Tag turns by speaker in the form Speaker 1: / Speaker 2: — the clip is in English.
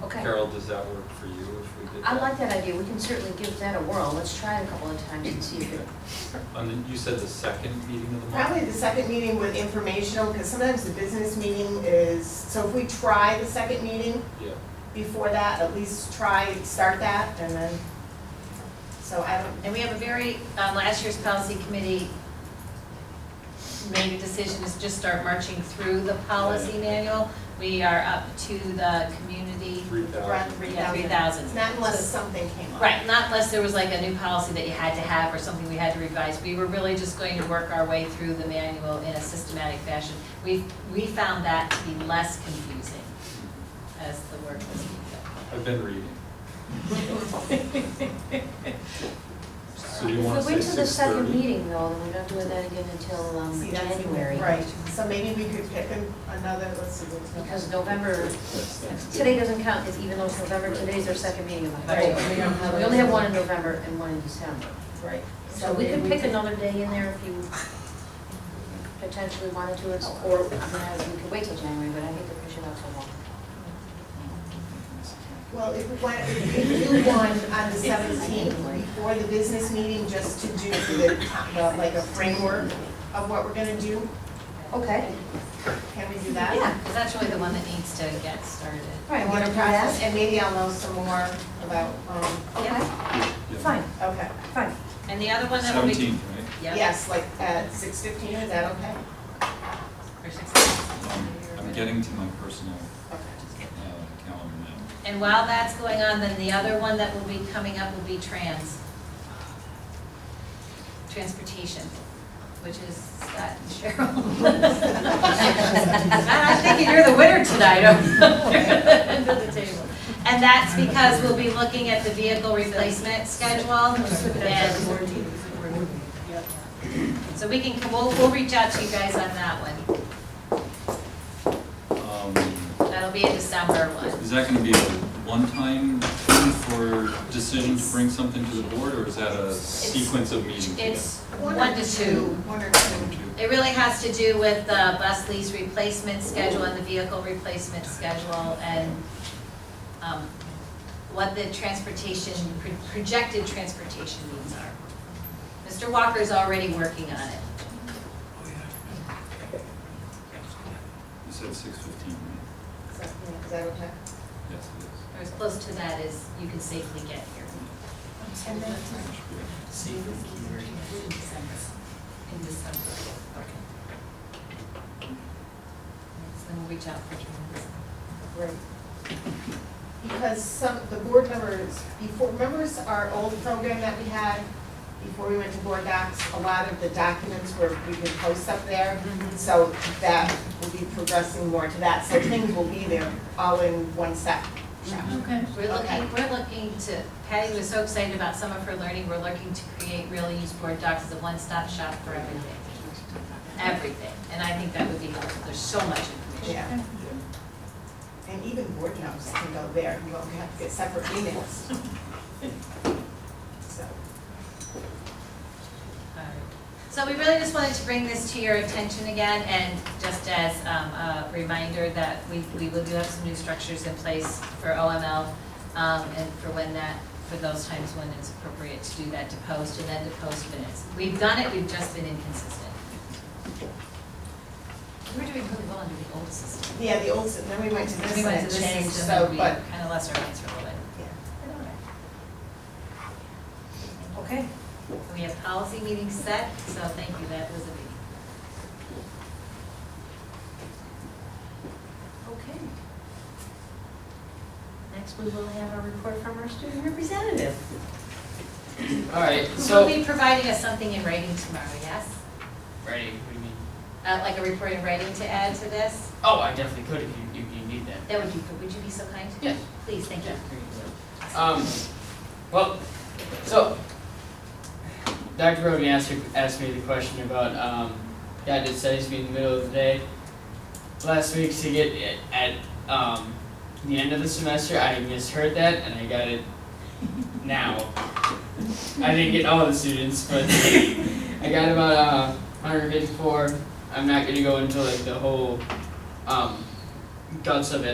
Speaker 1: does that work for you if we did that?
Speaker 2: I like that idea, we can certainly give that a whirl, let's try it a couple of times and see if it,
Speaker 1: On the, you said the second meeting of the month?
Speaker 3: Probably the second meeting with informational, because sometimes the business meeting is, so if we try the second meeting
Speaker 1: Yeah,
Speaker 3: before that, at least try, start that, and then, so I don't,
Speaker 4: And we have a very, um, last year's policy committee made a decision to just start marching through the policy manual. We are up to the community,
Speaker 1: three
Speaker 3: run
Speaker 1: thousand.
Speaker 3: three
Speaker 4: yeah,
Speaker 3: thousand.
Speaker 4: three thousand.
Speaker 3: It's not unless something came up.
Speaker 4: Right, not unless there was like a new policy that you had to have or something we had to revise. We were really just going to work our way through the manual in a systematic fashion. We, we found that to be less confusing as the work was being
Speaker 1: I've been reading. So
Speaker 2: If
Speaker 1: you
Speaker 2: we
Speaker 1: wanna say
Speaker 2: wait till the
Speaker 1: six
Speaker 2: second
Speaker 1: thirty?
Speaker 2: meeting though, then we're not doing that again until um,
Speaker 3: See, that's-
Speaker 2: January.
Speaker 3: Right, so maybe we could pick an- another, let's see, what's next.
Speaker 2: Because November, today doesn't count, it's even though it's November, today's our second meeting of October.
Speaker 3: Right, we don't have
Speaker 2: We only have one in November and one in December.
Speaker 3: Right.
Speaker 2: So we could
Speaker 3: maybe
Speaker 2: pick another day in there if you potentially wanted to, it's- or, I mean, we could wait till January, but I hate to push it out so long.
Speaker 3: Well, if we want, if we do one on the seventeenth, before the business meeting, just to do the, the, like a framework of what we're gonna do,
Speaker 2: Okay.
Speaker 3: can we do that?
Speaker 4: done. Because that's really Oh, the one that needs to get started.
Speaker 3: Right, want to process, and maybe I'll know some more about, um,
Speaker 2: Okay,
Speaker 1: Yeah.
Speaker 2: fine,
Speaker 3: okay.
Speaker 2: fine.
Speaker 4: And the other one that will be.
Speaker 1: Seventeenth, right?
Speaker 4: Yeah.
Speaker 3: Yes, like at six fifteen, is that okay?
Speaker 4: for six.
Speaker 1: Um, I'm getting to my personal
Speaker 3: Okay.
Speaker 1: uh, calendar now.
Speaker 4: And while that's going on, then the other one that will be coming up will be trans. Transportation, which is Scott and Cheryl. I'm thinking you're the winner tonight over there under the table. And that's because we'll be looking at the vehicle replacement schedule and, so we can, we'll, we'll reach out to you guys on that one.
Speaker 1: Um,
Speaker 4: That'll be a December one.
Speaker 1: Is that gonna be a one-time thing for decision to bring something to the board, or is that a sequence of meetings?
Speaker 4: It's one to two.
Speaker 3: One or two.
Speaker 1: Two.
Speaker 4: It really has to do with the bus lease replacement schedule and the vehicle replacement schedule and um, what the transportation, pro- projected transportation needs are. Mr. Walker's already working on it.
Speaker 1: You said six fifteen, right?
Speaker 3: Is that- yeah, Is that okay?
Speaker 1: Yes, it
Speaker 4: Or as close to that as you can safely get here
Speaker 3: And then,
Speaker 1: is. That should be it.
Speaker 4: in December. So then we'll reach out for you.
Speaker 3: great. Because some, the board members, before, remember our old program that we had before we went to board docs? A lot of the documents were, we could post up there.
Speaker 4: Mm-hmm.
Speaker 3: So that will be progressing more to that, so things will be there all in one set.
Speaker 4: Okay. We're
Speaker 3: Okay.
Speaker 4: looking, we're looking to, Patty was so excited about some of her learning, we're looking to create really use board docs as a one-stop shop for everything. Everything, and I think that would be helpful, there's so much information.
Speaker 3: Yeah. And even board notes can go there, you won't have to get separate emails. So,
Speaker 4: All right. So we really just wanted to bring this to your attention again, and just as um, a reminder that we, we will do have some new structures in place for OML, um, and for when that, for those times when it's appropriate to do that, to post and then to post minutes. We've done it, we've just been inconsistent. We're doing really well under the old system.
Speaker 3: yeah, the old, s- then we went to this
Speaker 4: We went
Speaker 3: and
Speaker 4: to
Speaker 3: it
Speaker 4: this
Speaker 3: changed,
Speaker 4: system,
Speaker 3: so,
Speaker 4: and we
Speaker 3: but,
Speaker 4: kind of lost our minds for a little
Speaker 3: yeah.
Speaker 4: bit.
Speaker 2: Okay.
Speaker 4: We have policy meetings set, so thank you, that was a meeting.
Speaker 2: Okay. Next, we will have a report from our student representative.
Speaker 5: All right,
Speaker 4: Who will
Speaker 5: so,
Speaker 4: be providing us something in writing tomorrow, yes?
Speaker 5: ready, what do you mean?
Speaker 4: Uh, Like a report in writing to add to this?
Speaker 5: Oh, I definitely could if you, if you need that.
Speaker 4: That would be, would you be so kind?
Speaker 5: Yeah.
Speaker 4: Please, thank you.
Speaker 5: Um, well, so, Dr. Roden asked, asked me the question about, um, yeah, did studies be in the middle of the day? Last week, to get it at, um, the end of the semester, I misheard that and I got it now. I didn't get all the students, but I got about, uh, hundred and fifty-four. I'm not gonna go into like the whole, um, guts of it.